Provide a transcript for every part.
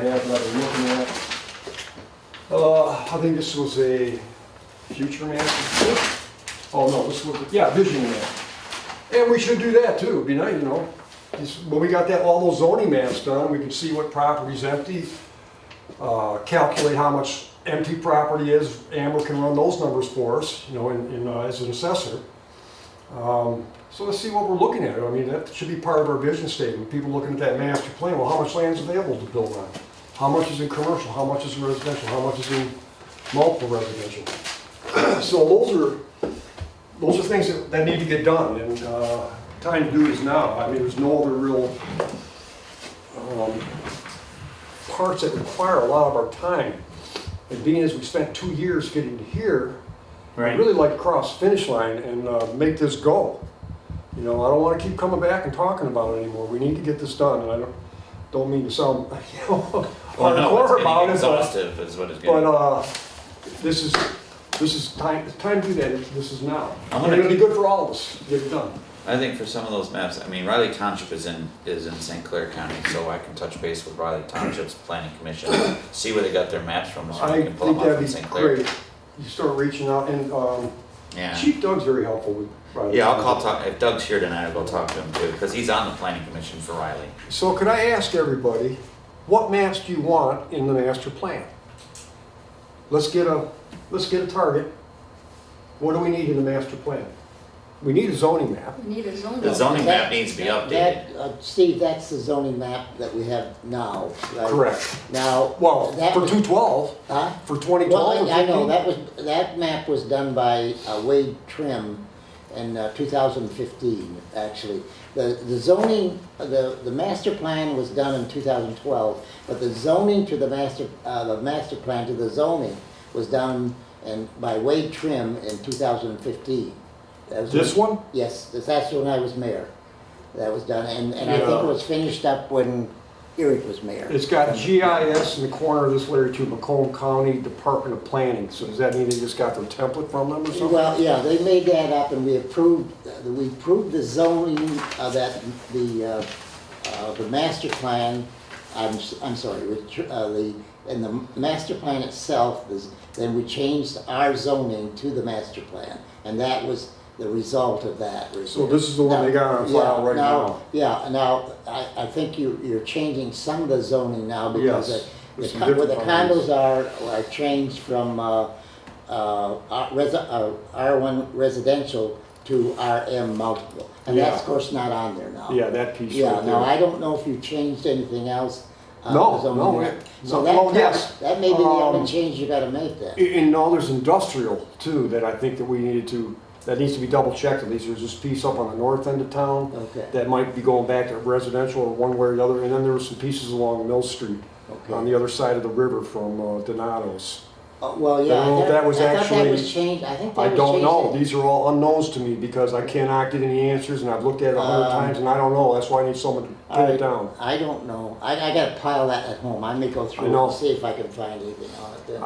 have that we're looking at. Uh, I think this was a future map. Oh, no, this was, yeah, vision map. And we should do that too, it'd be nice, you know. Just- When we got that, all those zoning maps done, we can see what property's empty, uh, calculate how much empty property is. Amber can run those numbers for us, you know, in, in, uh, as an assessor. Um, So let's see what we're looking at. I mean, that should be part of our vision statement. People looking at that master plan, well, how much land is available to build on? How much is in commercial? How much is in residential? How much is in multiple residential? So those are, those are things that, that need to get done, and, uh, time to do is now. I mean, there's no other real, um, parts that require a lot of our time. And being as we spent two years getting here, I'd Right. really like to cross the finish line and uh, make this go. You know, I don't want to keep coming back and talking about it anymore. We need to get this done, and I don't, don't mean to sound, you know, Well, Oh, no, it's hardcore about getting it, but, exhaustive is what it's but, getting. uh, this is, this is time, it's time to do that, this is now. And I'm gonna it'll be keep- good for all of us, to get it done. I think for some of those maps, I mean, Riley Township is in, is in St. Clair County, so I can touch base with Riley Township's planning commission, see where they got their maps from, so I we can pull think them up that'd in be St. Clair. great. You start reaching out, and um, Yeah, Chief Doug's very helpful with. right, yeah, I'll call, talk, if Doug's here tonight, I'll go talk to him too, because he's on the planning commission for Riley. So could I ask everybody, what maps do you want in the master plan? Let's get a, let's get a target. What do we need in the master plan? We need a zoning map. We need a zoning. The zoning map That- needs to be updated. That, uh, Steve, that's the zoning map that we have now, right? Correct. Now. Well, that for was- two twelve, Huh? for twenty Well, twelve. I I know, that was, that map was done by uh, Wade Trim in uh, 2015, actually. The the zoning, uh, the, the master plan was done in 2012, but the zoning to the master, uh, the master plan to the zoning was done in, by Wade Trim in 2015. That was- This one? Yes, that's- that's when I was mayor. That was done, and, and I think Yeah. it was finished up when Eric was mayor. It's got GIS in the corner of this letter to Macomb County Department of Planning. So does that mean they just got their template from them or something? Well, yeah, they made that up and we approved, we approved the zoning of that, the, uh, uh, the master plan, I'm, s- I'm sorry, with tr- uh, the, and the master plan itself is, then we changed our zoning to the master plan. And that was the result of that. right So there. this is the one they got on file Yeah, right now. Yeah, now, I, I think you, you're changing some of the zoning now because Yes, the- there's the some con- where the different ones. condos those are, are changed from, uh, uh, R- resi- uh, R1 residential to RM multiple. And that's, Yeah. of course, not on there now. Yeah, that piece Yeah, right now, there. I don't know if you changed anything else. uh, No, zoning no, or it- not. So no, that, well, part- yes. that may be the Um, only change you gotta make And- then. And now there's industrial too, that I think that we needed to, that needs to be double checked at least. There's this piece up on the north end of town Okay, that might be going back to residential or one way or the other. And then there were some pieces along Mill Street on okay. the other side of the river from uh, Donato's. Uh, Well, yeah, I I don't know if that was thought I thought actually- that was changed, I think that was I changed. don't know. in- These are all unknowns to me because I cannot get any answers and I've looked at it a hundred Um, times and I don't know. That's why I need someone to pin it Alright. down. I don't know, I, I gotta pile that at home, I may go through it know. and see if I can find anything on it then.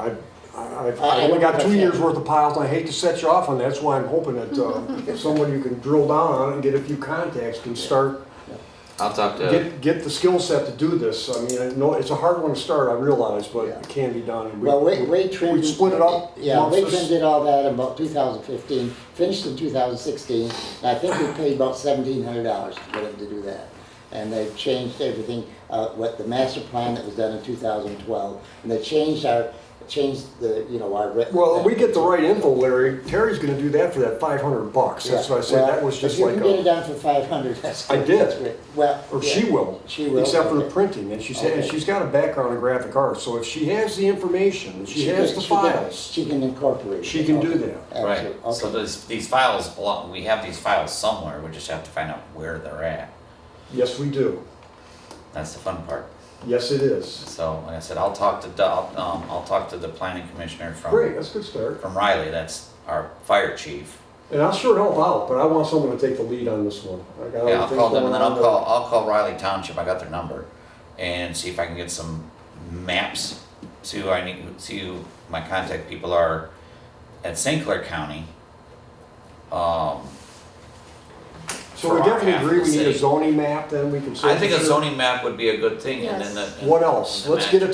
I, I- I've, I- I I've only don't got know two if years that- worth of piles, and I hate to set you off on that, that's why I'm hoping that, uh, someone you can drill down on it and get a few contacts can start, I'll talk to, get, get the skill set to do this. I mean, I know, it's a hard one to start, I realize, but Yeah. it can be done. and we- Well, Wade, Wade Trim. We split it up Yeah, amongst Wade us. Trim did all that in about two thousand fifteen, finished in two thousand sixteen, and I think we paid about seventeen hundred dollars for them to do that. And they changed everything, uh, what the master plan that was done in two thousand twelve, and they changed our, changed the, you know, our. re- Well, if we get the right info, Larry, Terry's gonna do that for that five hundred bucks, that's Yeah, what I said, well, that was just If like you can get it a, done for five hundred, that's. I did. that's great. Well. or yeah. she will. She will, Except for the okay. printing, and she's, and Okay. she's got a background in graphic arts, so if she has the information, and she has can- the she can- files, She can incorporate. it. she can do Okay. that. right, Absolutely. so Okay. these, these files belong, we have these files somewhere, we just have to find out where they're at. Yes, we do. That's the fun part. Yes, it is. So, like I said, I'll talk to Doug, um, I'll talk to the planning commissioner from. Great, that's a good start. from Riley, that's our fire chief. And I'll sure help out, but I want someone to take the lead on this one. I got other Yeah, I'll things call them going and then I'll on. call, I'll call Riley Township, I got their number, and see if I can get some maps. See who I need, see who my contact people are at St. Clair County. Um, So we for our half definitely of agree the we need a city. zoning map, then we can. I think a send it to- zoning map would be a good thing, and then the. What else? and the Let's get a master